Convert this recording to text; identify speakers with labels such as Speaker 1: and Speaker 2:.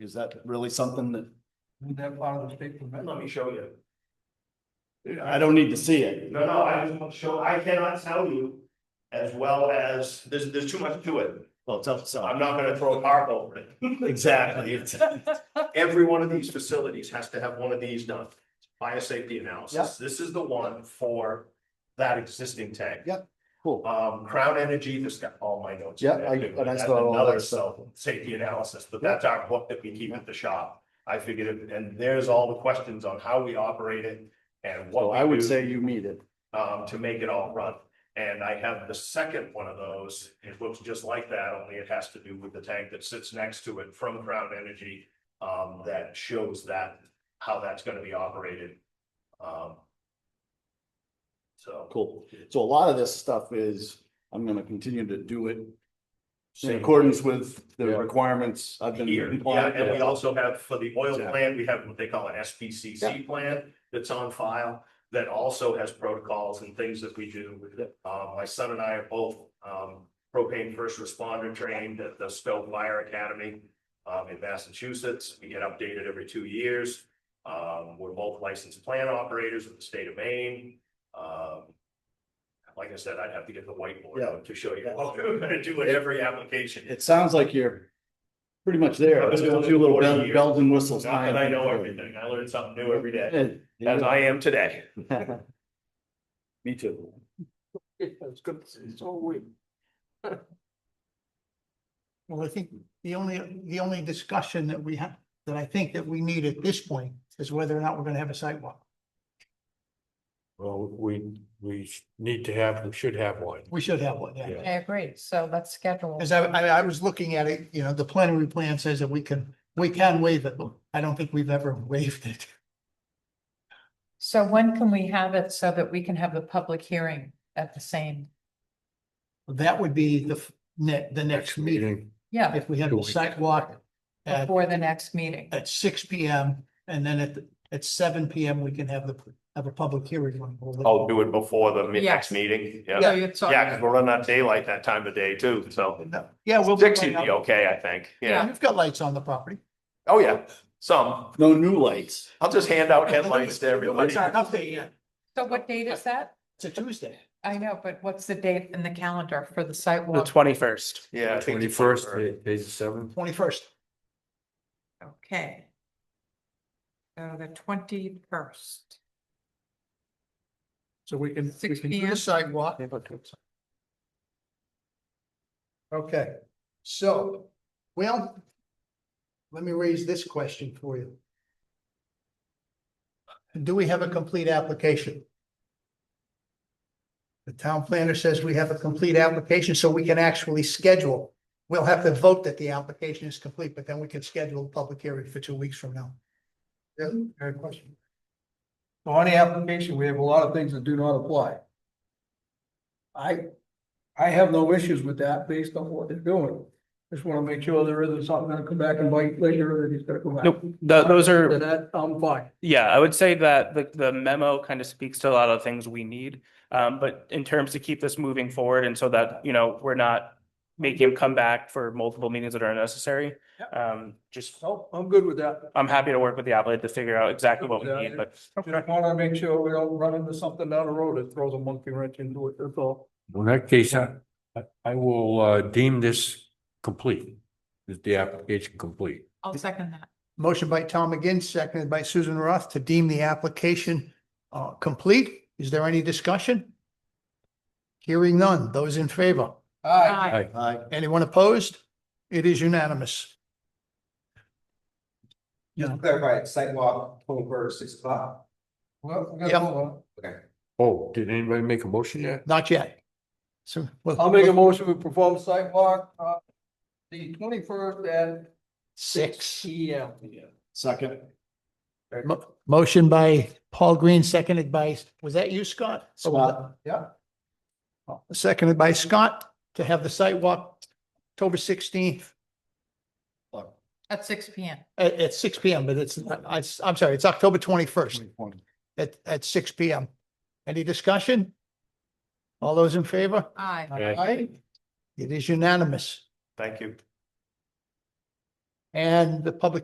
Speaker 1: Is that really something that,
Speaker 2: Isn't that part of the state permit?
Speaker 3: Let me show you.
Speaker 1: I don't need to see it.
Speaker 3: No, no, I just want to show, I cannot tell you as well as, there's, there's too much to it.
Speaker 1: Well, it's
Speaker 3: I'm
Speaker 1: outside.
Speaker 3: not gonna throw a tarp over it.
Speaker 1: Exactly. It's-
Speaker 3: Every one of these facilities has to have one of these done, biosafety analysis. This is the one for that existing tank.
Speaker 1: Yeah. Cool.
Speaker 3: Um, Crown Energy, this got all my notes.
Speaker 1: Yeah, I-
Speaker 3: That's
Speaker 1: and I saw all that
Speaker 3: another
Speaker 1: stuff.
Speaker 3: self- Safety analysis, but that's our book that we keep at the shop. I figured, it- and there's all the questions on how we operate it and what.
Speaker 1: So
Speaker 3: we
Speaker 1: I would
Speaker 3: do
Speaker 1: say you need it.
Speaker 3: um, to make it all run. And I have the second one of those. It looks just like that, only it has to do with the tank that sits next to it from Crown Energy. Um, that shows that, how that's gonna be operated. Um. So.
Speaker 1: Cool. So a lot of this stuff is, I'm gonna continue to do it in accordance with the
Speaker 4: Yeah.
Speaker 1: requirements I've been.
Speaker 3: Here, yeah,
Speaker 1: compliant
Speaker 3: and we
Speaker 1: with.
Speaker 3: also have for the oil
Speaker 1: Yeah.
Speaker 3: plant, we have what they call an SPCC plan that's on file. That also has protocols and things that we do. Uh, my son and I are both, um, propane first responder trained at the Spelt Fire Academy. um, in Massachusetts, we get updated every two years. Um, we're both licensed plant operators of the state of Maine. Um, Like I said, I'd have to get the whiteboard
Speaker 1: Yeah.
Speaker 3: out to show you what we're gonna do in every application.
Speaker 1: It sounds like you're pretty much there.
Speaker 3: I've been
Speaker 1: Just
Speaker 3: doing
Speaker 1: a
Speaker 3: it
Speaker 1: few little
Speaker 3: for 40
Speaker 1: bell-
Speaker 3: years.
Speaker 1: bells and whistles.
Speaker 3: Not that I know everything. I learn something new every day, as
Speaker 1: Yeah.
Speaker 3: I am today.
Speaker 1: Me too.
Speaker 2: It's good, it's all we.
Speaker 5: Well, I think the only, the only discussion that we have, that I think that we need at this point is whether or not we're gonna have a sidewalk.
Speaker 4: Well, we, we sh- need to have, we should have one.
Speaker 5: We should have one,
Speaker 4: Yeah.
Speaker 5: yeah.
Speaker 6: I agree, so let's schedule.
Speaker 5: Cause I, I, I was looking at it, you know, the plenary plan says that we can, we can waive it, but I don't think we've ever waived it.
Speaker 6: So when can we have it so that we can have the public hearing at the same,
Speaker 5: That would be the f- ne- the next meeting,
Speaker 6: yeah,
Speaker 5: if we have
Speaker 4: Two
Speaker 5: the
Speaker 4: weeks.
Speaker 5: sidewalk at,
Speaker 6: before the next meeting?
Speaker 5: at six P M. And then at, the- at seven P M, we can have the, have a public hearing. on all that.
Speaker 3: I'll do it before the mi-
Speaker 6: Yes.
Speaker 3: next meeting,
Speaker 6: So
Speaker 3: yeah.
Speaker 6: you're talking-
Speaker 3: Yeah, because we're running out of daylight that time of day too, so
Speaker 5: Yeah, we'll. be
Speaker 3: six would
Speaker 5: right
Speaker 3: be
Speaker 5: up.
Speaker 3: okay, I think, yeah.
Speaker 5: You've got lights on the property.
Speaker 3: Oh, yeah, some.
Speaker 1: No new lights.
Speaker 3: I'll just hand out headlights to everybody.
Speaker 5: It's not up there yet.
Speaker 6: So what date is that?
Speaker 5: It's a Tuesday.
Speaker 6: I know, but what's the date in the calendar for the site
Speaker 7: The
Speaker 6: walk?
Speaker 7: twenty-first.
Speaker 3: Yeah. I think
Speaker 4: Twenty
Speaker 3: it's-
Speaker 4: first, page seven.
Speaker 5: Twenty-first.
Speaker 6: Okay. So the twenty-first.
Speaker 5: So we can, we
Speaker 6: 6
Speaker 5: can do
Speaker 6: p.m.
Speaker 5: the sidewalk. Okay, so, well, let me raise this question for you. Do we have a complete application? The town planner says we have a complete application, so we can actually schedule. We'll have to vote that the application is complete, but then we can schedule a public hearing for two weeks from now. Yeah, good question.
Speaker 2: So on the application, we have a lot of things that do not apply. I, I have no issues with that based on what they're doing. Just wanna make sure there isn't something that'll come back and bite later that he's gonna come back.
Speaker 7: Nope, th- those
Speaker 2: So
Speaker 7: are,
Speaker 2: that, I'm fine.
Speaker 7: yeah, I would say that the, the memo kind of speaks to a lot of the things we need. Um, but in terms to keep this moving forward and so that, you know, we're not making him come back for multiple meetings that are unnecessary. Um, just,
Speaker 2: So I'm good with that.
Speaker 7: I'm happy to work with the applicant to figure out exactly what we
Speaker 2: Yeah,
Speaker 7: need, but.
Speaker 2: Just wanna make sure we don't run into something down the road that throws a monkey wrench into it, that's all.
Speaker 4: In that case, I, I- I will uh, deem this complete, Is the application complete.
Speaker 6: I'll second that.
Speaker 5: Motion by Tom McGinn, seconded by Susan Roth to deem the application uh, complete. Is there any discussion? Hearing none. Those in favor?
Speaker 6: Aye.
Speaker 1: Hi.
Speaker 5: Anyone opposed? It is unanimous.
Speaker 8: Just to clarify, it's sidewalk over six o'clock.
Speaker 2: Well, we
Speaker 5: Yeah.
Speaker 2: gotta move on.
Speaker 8: Okay.
Speaker 4: Oh, did anybody make a motion yet?
Speaker 5: Not yet. So. we'll-
Speaker 2: I'll make a motion, we perform sidewalk, uh, the twenty-first at
Speaker 5: Six.
Speaker 2: P M.
Speaker 1: Second.
Speaker 5: Mo- Motion by Paul Green, seconded by, was that you, Scott? Or was that-
Speaker 1: Scott.
Speaker 2: Yeah.
Speaker 5: Seconded by Scott to have the site walk October sixteenth
Speaker 6: At six P M.
Speaker 5: at, at six P M, but it's, I, I'm sorry, it's October twenty-first. at, at six P M. Any discussion? All those in favor?
Speaker 6: Aye.
Speaker 4: Aye.
Speaker 5: It is unanimous,
Speaker 3: Thank you.
Speaker 5: and the public